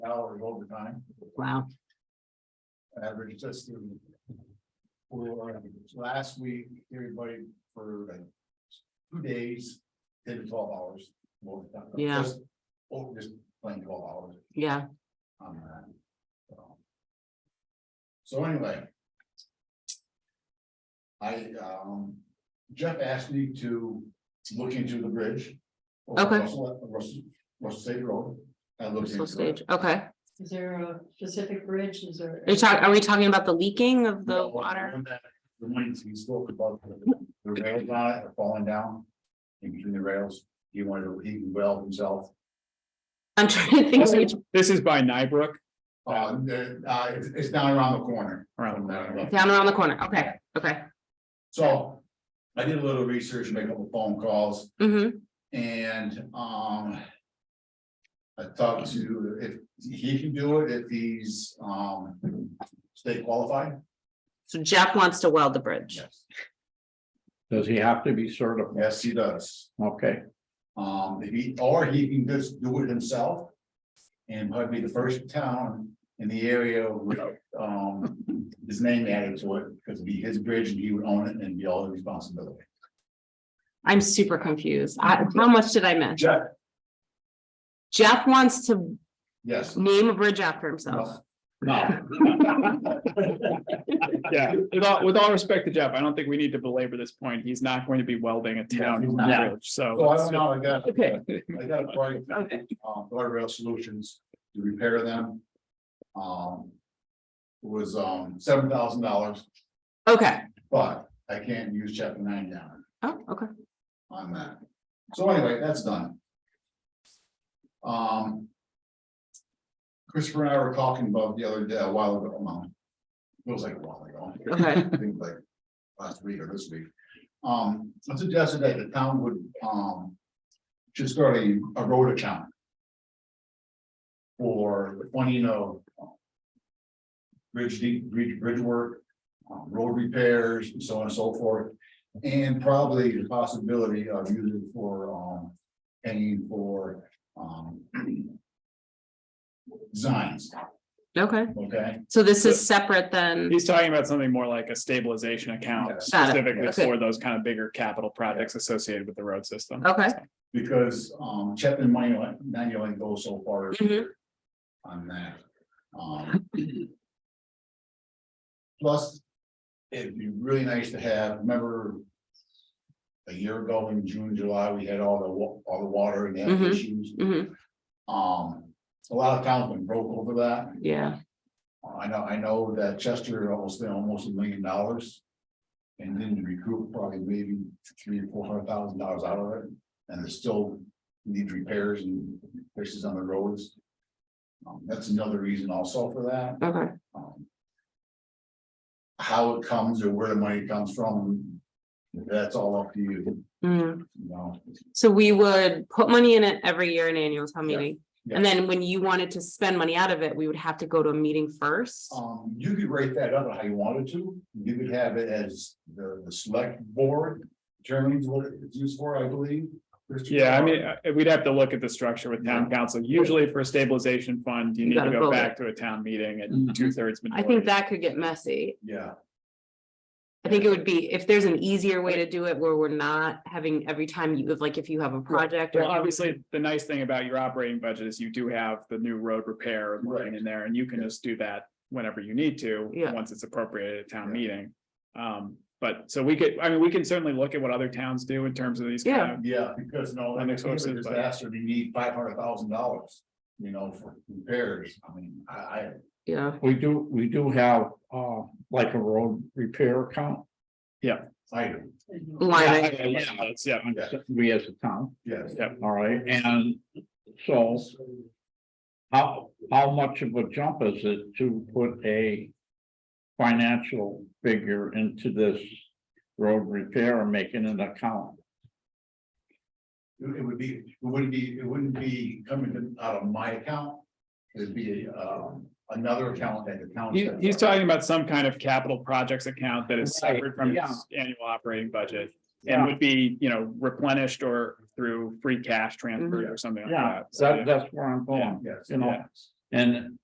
hours overtime, Wow, average just through. For uh, last week, everybody for like two days, did twelve hours. overtime. Yeah. Just- Oh, just playing twelve hours yeah, on that. so. So anyway. I, um, Jeff asked me to look into the bridge. over Okay. Russell, Russell, Russell State Road. I looked Russell into it. Stage, okay. Is there a specific bridge? Is there? Are you talking, are we talking about the leaking of the No, water? when that- The ones he spoke about, the the rails on it are falling down. In between the rails, he wanted to, he can weld himself. I'm trying to think, This which- is- This is by Nybrook, Um, the- uh, it's, it's down around the corner. around the corner. down around the corner, okay, okay. So I did a little research, make a couple phone calls Mm-hmm, and, um. I talked to, if he can do it, if he's, um, state qualified. so Jeff wants to weld the bridge. Yes. Does he have to be certified? Yes, he does. Okay, Um, if he, or he can just do it himself. And might be the first town in the area with, um, his name added to it, because it'd be his bridge and he would own it and be all the responsibility. I'm super confused. I, how much did I miss? Jeff, Jeff wants to yes, name a bridge after himself. no. Yeah, with all, with all respect to Jeff, I don't think we need to belabor this point. He's not going to be welding a town he's not. bridge, so. So I don't know, I got, Okay. I got a price, Okay. um, guardrail solutions to repair them. Um. it Was, um, seven thousand dollars, Okay, but I can't use chapter nine down oh, okay, on that. So anyway, that's done. Um. Christopher and I were talking about the other day, a while ago, um, it was like a while ago. okay, I think like last week or this week. Um, I suggested that the town would, um, just start a, a road account. For the funding of. um, Bridge deep, bridge, bridge work, um, road repairs and so on and so forth. And probably the possibility of using for, um, paying for, um. Designs, okay. okay? So this is separate than, He's talking about something more like a stabilization Got account it. specifically Okay. for those kind of bigger capital projects associated with the road system. okay, Because um Chapman money like ninety only goes so far Mhm. on that. Um. Plus, it'd be really nice to have, remember. A year ago in June, July, we had all the wa- all the water and the Mhm. issues. hmm Um, a lot of towns went broke over that. yeah, I know, I know that Chester almost spent almost a million dollars. And then recoup probably maybe three or four hundred thousand dollars out of it, and there's still need repairs and fixes on the roads. Um, that's another reason also for that, okay, um. How it comes or where the money comes from, that's all up to you, Mhm. you know, So we would put money in it every year in annual town Yeah. meeting. Yeah. And then when you wanted to spend money out of it, we would have to go to a meeting first. um, you could rate that up how you wanted to, you could have it as the, the select board. Determines what it's used for, I believe. Christopher? Yeah, I mean, uh, we'd have to look at the structure with town council. Usually for a stabilization fund, you You need to gotta go vote. back to a town meeting Mhm. and two thirds. I think that could get messy. Yeah, I think it would be, if there's an easier way to do it where we're not having every time you, if like if you have a project or. Well, obviously, the nice thing about your operating budget is you do have the new road repair and Right. line in there, and you can just do that whenever you need to. Yeah. Once it's appropriated at town Yeah. meeting. Um, but so we could, I mean, we can certainly look at what other towns do in terms of these kind Yeah. yeah, of, because no, That like I makes more said, if sense, it's a but- disaster, you need five hundred thousand dollars, you know, for repairs, I mean, I, I. Yeah, we do, we do have, uh, like a road repair account, I, line Yeah, item. yeah, yeah, that's- yeah, I'm- we as a town, yes, all right, and so. How, how much of a jump is it to put a financial figure into this road repair and making an account? it it would be, it wouldn't be, it wouldn't be coming out of my account. It'd be, um, another account that the town. He, sets he's up. talking about some kind of capital projects account that is Right, separate from yeah. his annual operating budget. And Yeah, would be, you know, replenished or through free cash transfer or something like Mm-hmm. yeah, that. So, that, that's where I'm going, Yes, you know, and